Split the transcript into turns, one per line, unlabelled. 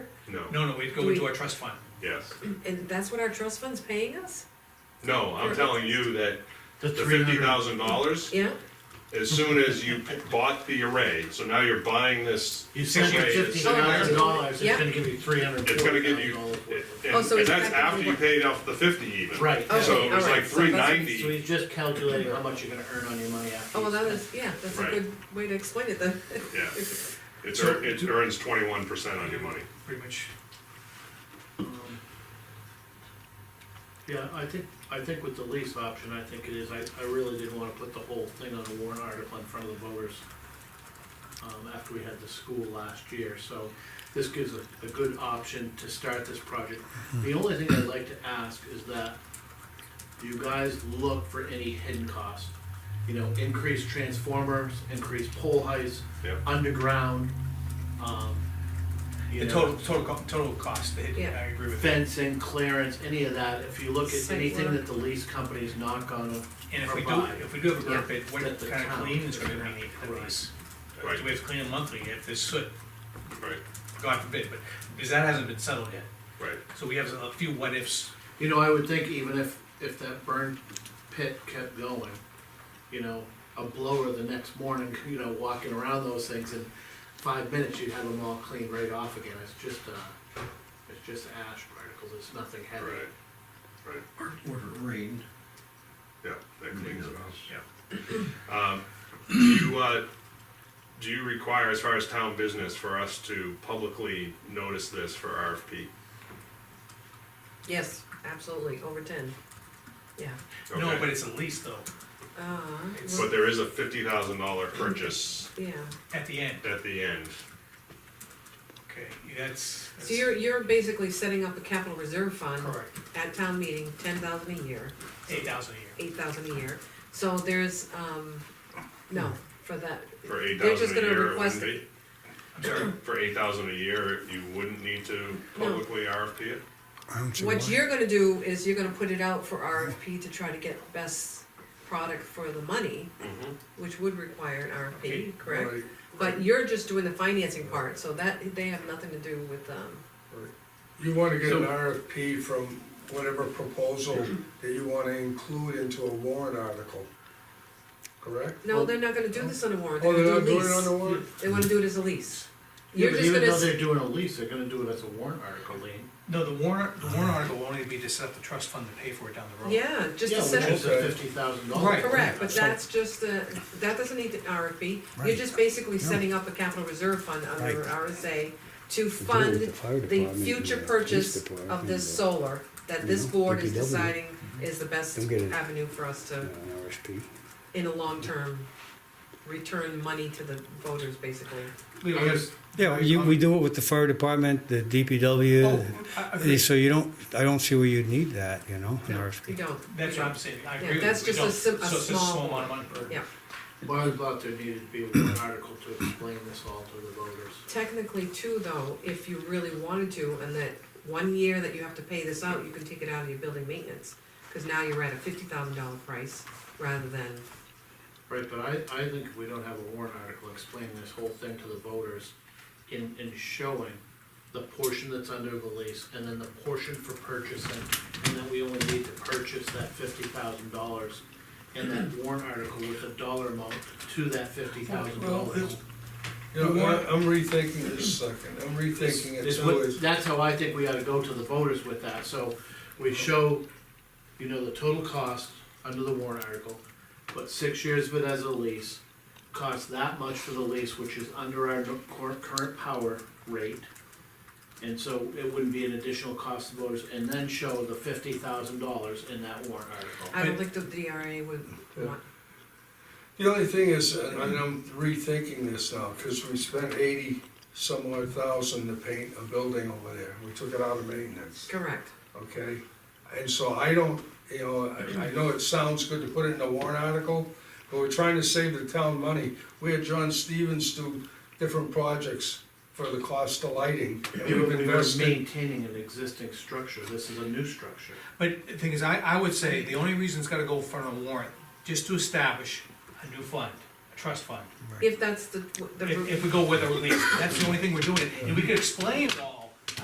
No,
No, no, we'd go
Do we- Oh,
into our trust fund.
yes.
And that's what our trust fund's paying us?
No, I'm telling you that
The
the
three
fifty
hundred,
thousand dollars,
Yeah?
as soon as you p- bought the array, so now you're buying this.
you sent it
array, it's-
fifty thousand dollars, it's
Yeah.
gonna give you three hundred
It's gonna
forty
give
thousand
you,
dollars worth
and
Oh, so
and
it's
that's after you
effectively-
paid off the fifty even.
Right.
So
Okay,
it was
all
like
right, so that's-
three
of it. So
ninety,
he's just calculating how much you're gonna earn on your money after.
Oh, well,
you
that
spend
is, yeah, that's a
Right.
good way to explain it then.
yeah. It's, ear- it earns twenty-one percent on your money.
Pretty much,
it. Um, Yeah, I think, I think with the lease option, I think it is, I, I really didn't wanna put the whole thing on a warrant article in front of the voters. Um, after we had the school last year, so this gives a, a good option to start this project. The only thing I'd like to ask is that you guys look for any hidden costs. You know, increased transformers, increased pole heights,
Yeah.
underground, um. you
the
know
total, total, co- total cost, it-
Yeah.
I agree with that.
fencing, clearance, any of that, if you look at
Site
anything
work.
that the lease company's not gonna,
And if we do,
provide
if we do have a grant
Yeah.
bid, what
that the
kind of
town
clean is
is
gonna
gonna
be needed
have to
for
provide.
these?
Right.
Do we have to clean them monthly if there's soot,
Right,
God forbid, but, because that hasn't been settled yet.
right.
So we have a few what ifs,
you know, I would think even if, if that burn pit kept going, you know, a blower the next morning, you know, walking around those things in five minutes, you'd have them all cleaned right off again, it's just, uh, it's just ash particles, it's nothing heavy.
Right, right,
Or or it rained.
yeah, that cleans it up.
yeah.
Um, Do you, uh, do you require, as far as town business, for us to publicly notice this for RFP?
Yes, absolutely, over ten. Yeah.
No,
Okay.
but it's a lease though,
Uh, well,
But there is a fifty thousand dollar purchase
yeah.
at the end,
at the end.
okay, that's.
So you're, you're basically setting up a capital reserve fund
Correct,
at town meeting, ten thousand a year,
eight thousand a year.
eight thousand a year. So there's, um, no, for that,
For eight
They're just
thousand a
gonna
year, it
request
wouldn't be?
I'm sorry,
For eight thousand a year, you wouldn't need to
No.
publicly RFP it?
I don't see
What
why.
you're gonna do is you're gonna put it out for RFP to try to get best product for the money,
Mhm.
which would require an
Okay,
RFP, correct? But you're just doing the financing part, so that, they have nothing to do with, um,
You wanna get an
So-
RFP from whatever proposal that you wanna include into a warrant article, correct?
no, they're not gonna do this on a warrant,
Oh,
they're
they're
gonna
not
do
doing it on
a
the
lease.
warrant?
They wanna do it as a lease.
Yeah,
You're
but
just
even
gonna,
though
s-
they're doing a lease, they're gonna do it as a warrant article, Lean.
no, the warrant, the warrant article will only be to set up the trust fund to pay for it down the road.
yeah, just to set
Yeah,
up,
which is a
Okay.
fifty thousand dollars.
Right.
correct, but that's just the, that doesn't need an RFP. You're
Right.
just basically
No.
setting up a capital reserve fund under
Right.
RSA to
To do
fund
with the fire
the
department and
future
police
purchase
department
of this
and
solar, that this
You know,
board is
DPW.
deciding is the best
Don't get it.
avenue for us
the,
to,
uh, an RSP.
in a long term, return money to the voters, basically.
Leo,
I guess-
Yeah, you, we do it with the fire department, the
Oh,
DPW,
I- I
eh,
agree.
so you don't, I don't see where you'd need that, you know, an
No.
You
RSP.
don't.
That's what I'm saying,
Yeah,
I agree with you.
that's
We
just a
don't.
sim- a
So it's just
small
amount of money.
Yeah,
Well, I thought there needed to be one article to explain this all to the voters.
technically too, though, if you really wanted to, and that one year that you have to pay this out, you can take it out of your building maintenance. Cause now you're at a fifty thousand dollar price rather than,
Right, but I, I think if we don't have a warrant article explaining this whole thing to the voters in, in showing the portion that's under the lease and then the portion for purchasing, and then we only need to purchase that fifty thousand dollars and that warrant article with a dollar amount to that fifty thousand dollars.
You know, I- I'm rethinking this second, I'm rethinking it
This
too,
would-
is,
That's how I think we ought to go to the voters with that, so we show, you know, the total cost under the warrant article, but six years of it as a lease, costs that much for the lease, which is under our cor- current power rate. And so it wouldn't be an additional cost to voters, and then show the fifty thousand dollars in that warrant article.
I don't think the DRA would
Yeah.
want,
the only thing is, and I'm rethinking this now, cause we spent eighty some odd thousand to paint a building over there, we took it out of maintenance.
correct.
okay? And so I don't, you know, I, I know it sounds good to put it in a warrant article, but we're trying to save the town money. We had John Stevens do different projects for the cost of lighting. and
We
we've
were we were
invested-
maintaining an existing structure, this is a new structure.
But the thing is, I, I would say the only reason it's gotta go in front of a warrant, just to establish a new fund, a trust fund.
If that's the, the.
If, if we go with a release, that's the only thing we're doing, and we could explain it all. uh,